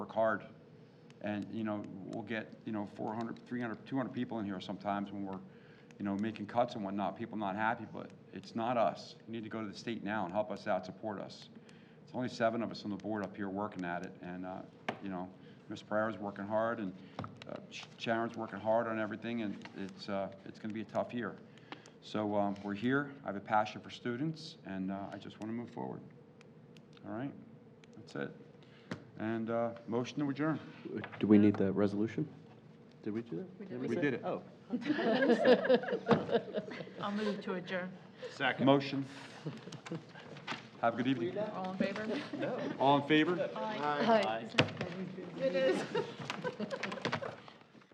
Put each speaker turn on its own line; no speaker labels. work hard. And, you know, we'll get, you know, 400, 300, 200 people in here sometimes when we're, you know, making cuts and whatnot, people not happy, but it's not us. You need to go to the state now and help us out, support us. It's only seven of us on the board up here working at it, and, uh, you know, Ms. Pereira's working hard, and uh, Sh- Sharon's working hard on everything, and it's, uh, it's gonna be a tough year. So, um, we're here, I have a passion for students, and, uh, I just wanna move forward. All right, that's it. And, uh, motion to adjourn.
Do we need the resolution? Did we do that?
We did it.
Oh.
I'll move to adjourn.
Motion. Have a good evening.
All in favor?
All in favor?
Hi.
It is.